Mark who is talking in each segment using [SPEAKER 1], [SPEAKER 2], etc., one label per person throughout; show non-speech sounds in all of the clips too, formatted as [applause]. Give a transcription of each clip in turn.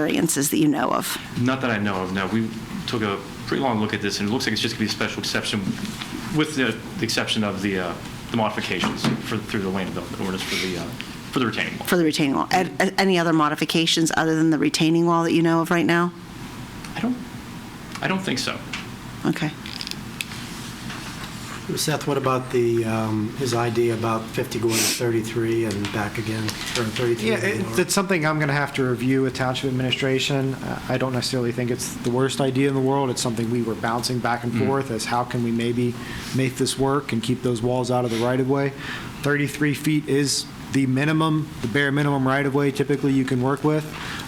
[SPEAKER 1] variances that you know of.
[SPEAKER 2] Not that I know of, no. We took a pretty long look at this, and it looks like it's just going to be a special exception, with the the exception of the uh, the modifications for, through the land development ordinance for the, uh, for the retaining wall.
[SPEAKER 1] For the retaining wall. And- and Any other modifications other than the retaining wall that you know of right now?
[SPEAKER 2] I don't, I don't think so.
[SPEAKER 1] Okay.
[SPEAKER 3] Seth, what about the, um, his idea about 50 going to 33 and back again, or 33?
[SPEAKER 4] Yeah,
[SPEAKER 3] and
[SPEAKER 4] it-
[SPEAKER 3] lower?
[SPEAKER 4] it's something I'm going to have to review with township administration. Uh, I don't necessarily think it's the worst idea in the world. It's something we were bouncing back and forth as how can we maybe make this work and keep those walls out of the right-of-way? 33 feet is the minimum, the bare minimum right-of-way typically you can work with.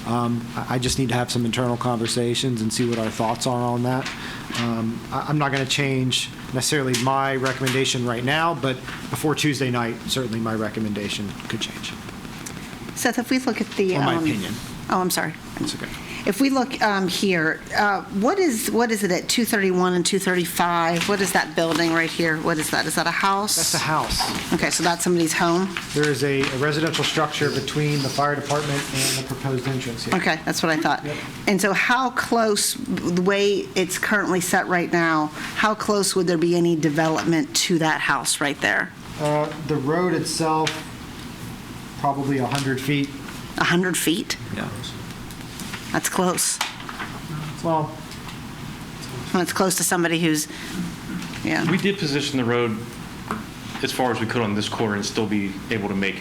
[SPEAKER 4] Um, I I just need to have some internal conversations and see what our thoughts are on that. Um, I- I'm not going to change necessarily my recommendation right now, but before Tuesday night, certainly my recommendation could change.
[SPEAKER 1] Seth, if we look at the.
[SPEAKER 4] Or my
[SPEAKER 1] um,
[SPEAKER 4] opinion.
[SPEAKER 1] Oh, I'm sorry.
[SPEAKER 4] It's okay.
[SPEAKER 1] If we look um, here, uh, what is, what is it at 231 and 235? What is that building right here? What is that? Is that a house?
[SPEAKER 4] That's a house.
[SPEAKER 1] Okay, so that's somebody's home?
[SPEAKER 4] There is a a residential structure between the fire department and the proposed entrance here.
[SPEAKER 1] Okay, that's what I thought.
[SPEAKER 4] Yep.
[SPEAKER 1] And so how close, the way it's currently set right now, how close would there be any development to that house right there?
[SPEAKER 4] Uh, The road itself, probably 100 feet.
[SPEAKER 1] 100 feet?
[SPEAKER 4] Yeah.
[SPEAKER 1] That's close.
[SPEAKER 4] Well,
[SPEAKER 1] Well, it's close to somebody who's, yeah,
[SPEAKER 2] We did position the road as far as we could on this corner and still be able to make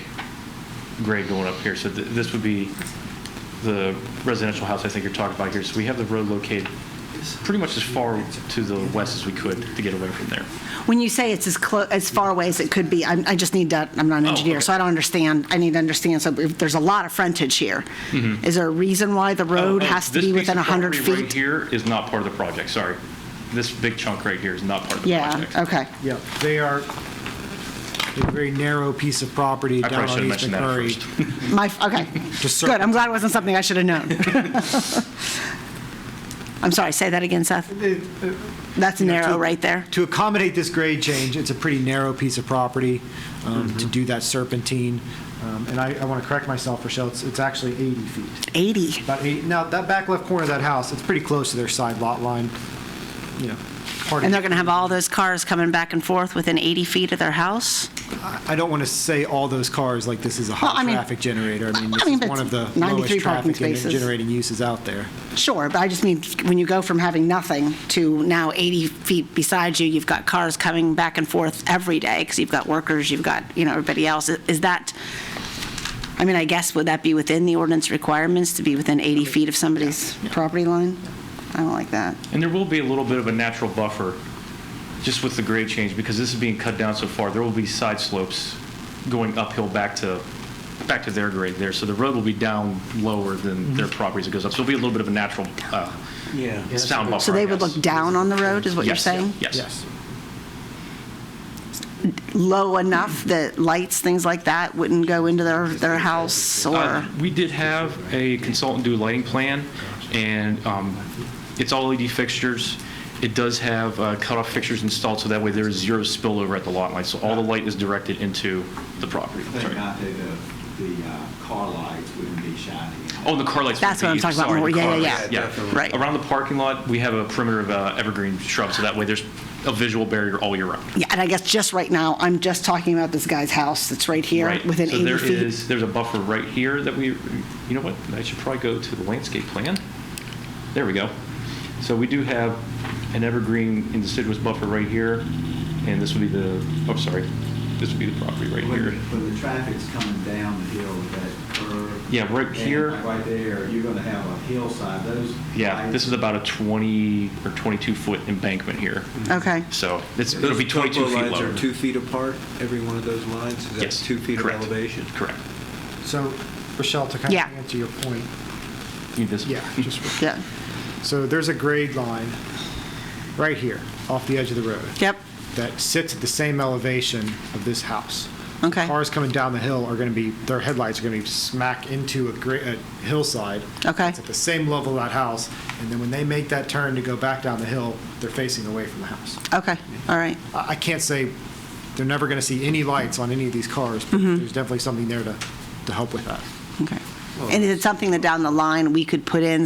[SPEAKER 2] grade going up here. So th- this would be the residential house I think you're talking about here. So we have the road located pretty much as far to the west as we could to get away from there.
[SPEAKER 1] when you say it's as clo, as far away as it could be, I'm, I just need to, I'm not an
[SPEAKER 2] Oh,
[SPEAKER 1] engineer,
[SPEAKER 2] okay.
[SPEAKER 1] so I don't understand, I need to understand, so if there's a lot of frontage here. Is there a reason why the road
[SPEAKER 2] Mm-hmm. Oh, oh,
[SPEAKER 1] has to
[SPEAKER 2] this
[SPEAKER 1] be
[SPEAKER 2] piece
[SPEAKER 1] within
[SPEAKER 2] of
[SPEAKER 1] 100
[SPEAKER 2] property Right
[SPEAKER 1] feet?
[SPEAKER 2] here is not part of the project, sorry. This big chunk right here is not part of the
[SPEAKER 1] Yeah,
[SPEAKER 2] project.
[SPEAKER 1] okay,
[SPEAKER 4] yeah, they are a very narrow piece of property
[SPEAKER 2] I
[SPEAKER 4] down
[SPEAKER 2] probably should
[SPEAKER 4] on
[SPEAKER 2] have
[SPEAKER 4] East
[SPEAKER 2] mentioned that
[SPEAKER 4] McMurray.
[SPEAKER 2] first.
[SPEAKER 1] my, okay,
[SPEAKER 4] Just
[SPEAKER 1] good, I'm
[SPEAKER 4] circle.
[SPEAKER 1] glad it wasn't something I should have
[SPEAKER 2] [laughs]
[SPEAKER 1] known. [laughs] I'm sorry, say that again, Seth? That's
[SPEAKER 4] You know, to-
[SPEAKER 1] narrow right there?
[SPEAKER 4] To accommodate this grade change, it's a pretty narrow piece of property um,
[SPEAKER 1] Mm-hmm.
[SPEAKER 4] to do that serpentine. Um, And I want to correct myself, Rochelle, it's it's actually 80 feet.
[SPEAKER 1] 80,
[SPEAKER 4] About eight, now, that back left corner of that house, it's pretty close to their side lot line, you know. part of-
[SPEAKER 1] and they're going to have all those cars coming back and forth within 80 feet of their house?
[SPEAKER 4] I I don't want to say all those cars like this is a
[SPEAKER 1] Well, I mean-
[SPEAKER 4] high-traffic generator. I mean,
[SPEAKER 1] I
[SPEAKER 4] this
[SPEAKER 1] mean,
[SPEAKER 4] is
[SPEAKER 1] but
[SPEAKER 4] one of the
[SPEAKER 1] 93
[SPEAKER 4] lowest
[SPEAKER 1] parking
[SPEAKER 4] traffic and
[SPEAKER 1] spaces.
[SPEAKER 4] generating uses out there.
[SPEAKER 1] Sure, but I just mean, when you go from having nothing to now 80 feet beside you, you've got cars coming back and forth every day, because you've got workers, you've got, you know, everybody else. Is that, I mean, I guess, would that be within the ordinance requirements to be within 80 feet of somebody's property line? I don't like that.
[SPEAKER 2] And there will be a little bit of a natural buffer just with the grade change because this is being cut down so far. There will be side slopes going uphill back to, back to their grade there. So the road will be down lower than their property as it goes up. So it'll be a little bit of a natural uh, sound buffer,
[SPEAKER 1] So
[SPEAKER 2] I
[SPEAKER 1] they would
[SPEAKER 2] guess.
[SPEAKER 1] look down on the road, is what you're
[SPEAKER 2] Yes,
[SPEAKER 1] saying?
[SPEAKER 2] Yes.
[SPEAKER 1] Low enough that lights, things like that, wouldn't go into their, their house,
[SPEAKER 2] Uh,
[SPEAKER 1] or?
[SPEAKER 2] We did have a consultant do a lighting plan, and um, it's all LED fixtures. It does have uh, cutoff fixtures installed, so that way there is zero spillover at the lot line, so all the light is directed into the property.
[SPEAKER 5] Thank God that the, the uh, car lights wouldn't be shining.
[SPEAKER 2] Oh, and the car lights. would
[SPEAKER 1] That's what I'm
[SPEAKER 2] be-
[SPEAKER 1] talking about
[SPEAKER 2] sorry,
[SPEAKER 1] more.
[SPEAKER 2] the
[SPEAKER 1] Yeah,
[SPEAKER 2] car
[SPEAKER 1] yeah,
[SPEAKER 2] lights,
[SPEAKER 5] yeah.
[SPEAKER 1] Right.
[SPEAKER 2] Around the parking lot, we have a perimeter of uh, evergreen shrubs, so that way there's a visual barrier all year round.
[SPEAKER 1] Yeah, and I guess just right now, I'm just talking about this guy's house that's right here,
[SPEAKER 2] Right.
[SPEAKER 1] within
[SPEAKER 2] So
[SPEAKER 1] 80
[SPEAKER 2] there
[SPEAKER 1] feet.
[SPEAKER 2] is, there's a buffer right here that we, you know what, I should probably go to the landscape plan. There we go. So we do have an evergreen deciduous buffer right here, and this would be the, oh, sorry, this would be the property right
[SPEAKER 5] When,
[SPEAKER 2] here.
[SPEAKER 5] when the traffic's coming down the hill with that curve.
[SPEAKER 2] Yeah, right
[SPEAKER 5] and
[SPEAKER 2] here.
[SPEAKER 5] Right there, you're gonna have a hillside, those.
[SPEAKER 2] Yeah, this is about a 20 or 22-foot embankment here,
[SPEAKER 1] Okay,
[SPEAKER 2] so it's,
[SPEAKER 6] Yeah,
[SPEAKER 2] it'll
[SPEAKER 6] those
[SPEAKER 2] be 22
[SPEAKER 6] topo
[SPEAKER 2] feet lower.
[SPEAKER 6] Lines are two feet apart, every one of those lines, is that
[SPEAKER 2] Yes,
[SPEAKER 6] two feet of
[SPEAKER 2] correct.
[SPEAKER 6] elevation?
[SPEAKER 2] Correct.
[SPEAKER 4] So, Rochelle, to kind of
[SPEAKER 1] Yeah.
[SPEAKER 4] answer your point,
[SPEAKER 2] Need this?
[SPEAKER 4] yeah,
[SPEAKER 2] [laughs]
[SPEAKER 4] just,
[SPEAKER 1] yeah,
[SPEAKER 4] so there's a grade line right here, off the edge of the road.
[SPEAKER 1] yep,
[SPEAKER 4] That sits at the same elevation of this house.
[SPEAKER 1] okay,
[SPEAKER 4] Cars coming down the hill are going to be, their headlights are going to be smack into a gra- a hillside.
[SPEAKER 1] okay,
[SPEAKER 4] It's at the same level of that house, and then when they make that turn to go back down the hill, they're facing away from the house.
[SPEAKER 1] okay, all right.
[SPEAKER 4] I I can't say they're never going to see any lights on any of these cars, but there's definitely something there to, to help with that.
[SPEAKER 1] Okay. And is it something that down the line we could put in